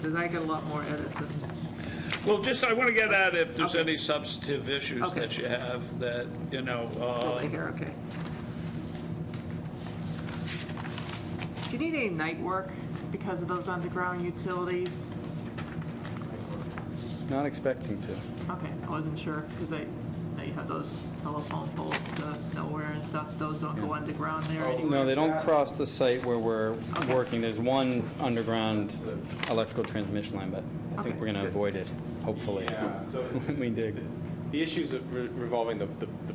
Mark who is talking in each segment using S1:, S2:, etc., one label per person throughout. S1: 'cause I get a lot more edits than,
S2: Well, just, I want to get at if there's any substantive issues
S1: Okay.
S2: that you have that, you know,
S1: oh,
S2: uh,
S1: here, okay. Do you need any night work because of those underground utilities?
S3: Not expecting to.
S1: Okay, I wasn't sure, because I, know you have those telephone poles to nowhere and stuff, those don't go underground there anyway.
S3: No, they don't cross the site where we're
S1: Okay.
S3: working. There's one underground electrical transmission line, but I think
S1: Okay.
S3: we're going to avoid it, hopefully,
S4: Yeah, so
S3: when we dig.
S4: the issues of re- revolving the, the the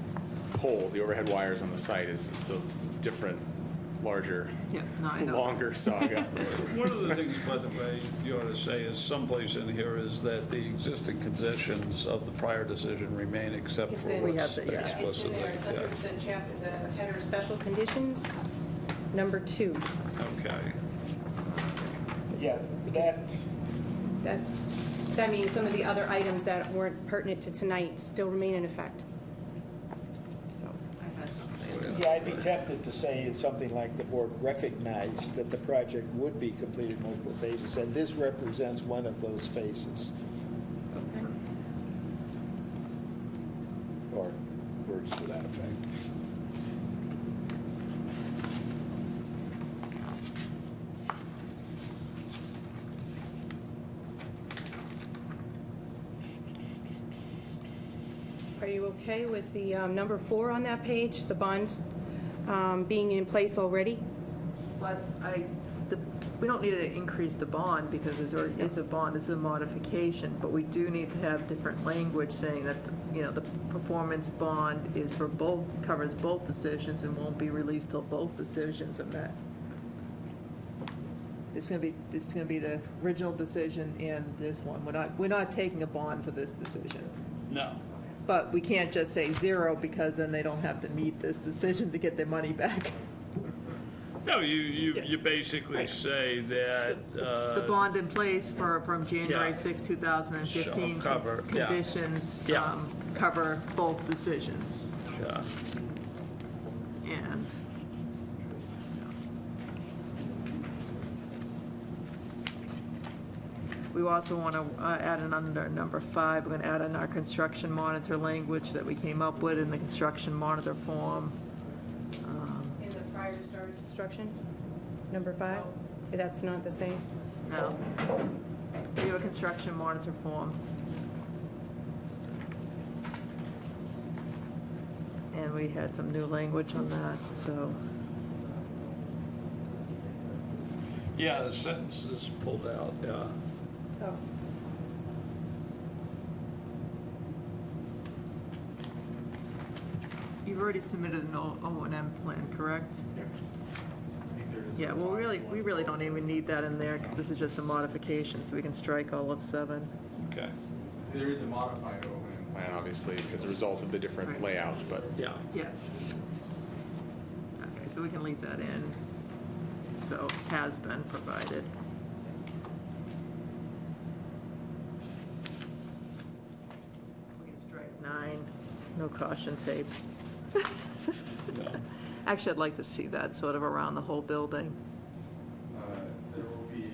S4: poles, the overhead wires on the site is, is a different, larger,
S1: Yeah, no, I know.
S4: longer saga.
S2: one of the things, by the way, you ought to say is someplace in here is that the existing conditions of the prior decision remain except
S5: It's
S2: for
S5: in-
S2: what's
S1: We have the- yeah.
S5: It's in
S2: explicitly.
S5: there, except
S2: yeah.
S5: it's the chap, the header, special conditions, number two.
S2: Okay.
S6: Yeah, that,
S5: That, that means some of the other items that weren't pertinent to tonight still remain in effect. So,
S1: I had something.
S6: yeah, I'd be tempted to say it's something like the board recognized that the project would be completed in multiple phases, and this represents one of those phases. Or words to that effect.
S5: are you okay with the um, number four on that page, the bonds um, being in place already?
S1: But I, the, we don't need to increase the bond because it's already, it's a bond, it's a modification, but we do need to have different language saying that, you know, the performance bond is for both, covers both decisions and won't be released till both decisions are met. It's gonna be, it's gonna be the original decision and this one. We're not, we're not taking a bond for this decision.
S2: No.
S1: But we can't just say zero because then they don't have to meet this decision to get their money back.
S2: No, you, you,
S1: Yeah.
S2: you basically
S1: Right.
S2: say that.
S1: The
S2: uh,
S1: bond in place for, from January
S2: Yeah.
S1: 6, 2015.
S2: Shall cover, yeah.
S1: Conditions
S2: Yeah.
S1: um, cover both decisions.
S2: yeah.
S1: And we also want to add an under number five, we're going to add in our construction monitor language that we came up with in the construction monitor form.
S5: In the prior to start of construction, Oh. number five? That's not the same?
S1: No. We have a construction monitor form. And we had some new language on that, so,
S2: Yeah, the sentence is pulled out, yeah.
S5: Oh.
S1: you've already submitted an O and M plan, correct? Yeah, well, really, we really don't even need that in there, because this is just a modification, so we can strike all of seven.
S2: Okay,
S4: There is a modified O&M plan, obviously, as a result of the different layout, but
S2: yeah.
S1: Yeah. Okay, so we can leave that in. So has been provided. We can strike nine, no caution tape.
S2: yeah.
S1: Actually, I'd like to see that sort of around the whole building.
S4: uh, there will be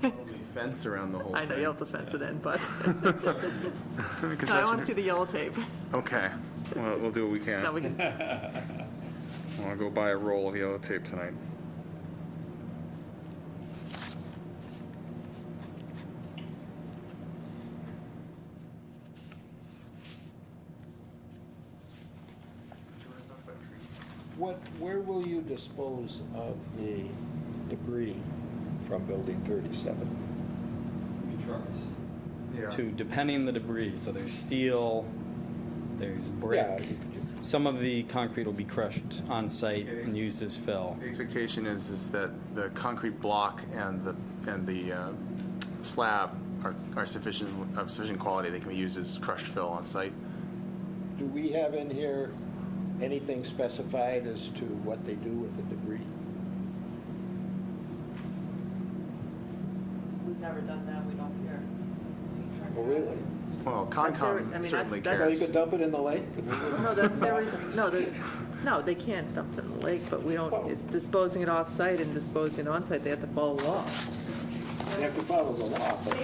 S4: probably fence around the whole
S1: I know you have to fence it in, but No, I want to see the yellow tape.
S4: Okay, well, we'll do what we can.
S1: Now we can,
S4: I want to go buy a roll of yellow tape tonight.
S6: What, where will you dispose of the debris from Building 37?
S3: To, depending the debris, so there's steel, there's brick.
S6: Yeah.
S3: Some of the concrete will be crushed on-site and used as fill.
S7: The expectation is, is that the concrete block and the, and the uh, slab are are sufficient, of sufficient quality, they can be used as crushed fill on site.
S6: Do we have in here anything specified as to what they do with the debris?
S1: we've never done that, we don't care.
S6: Oh, really?
S7: Well,
S1: serious. I mean,
S7: Concom
S1: that's-
S7: certainly
S1: that's-
S6: Well,
S7: cares.
S6: you could dump it in the lake?
S1: No, that's, there is, no, the, no, they can't dump it in the lake, but we don't, it's disposing it off-site and disposing it on-site, they have to follow law.
S6: have to follow the law, but.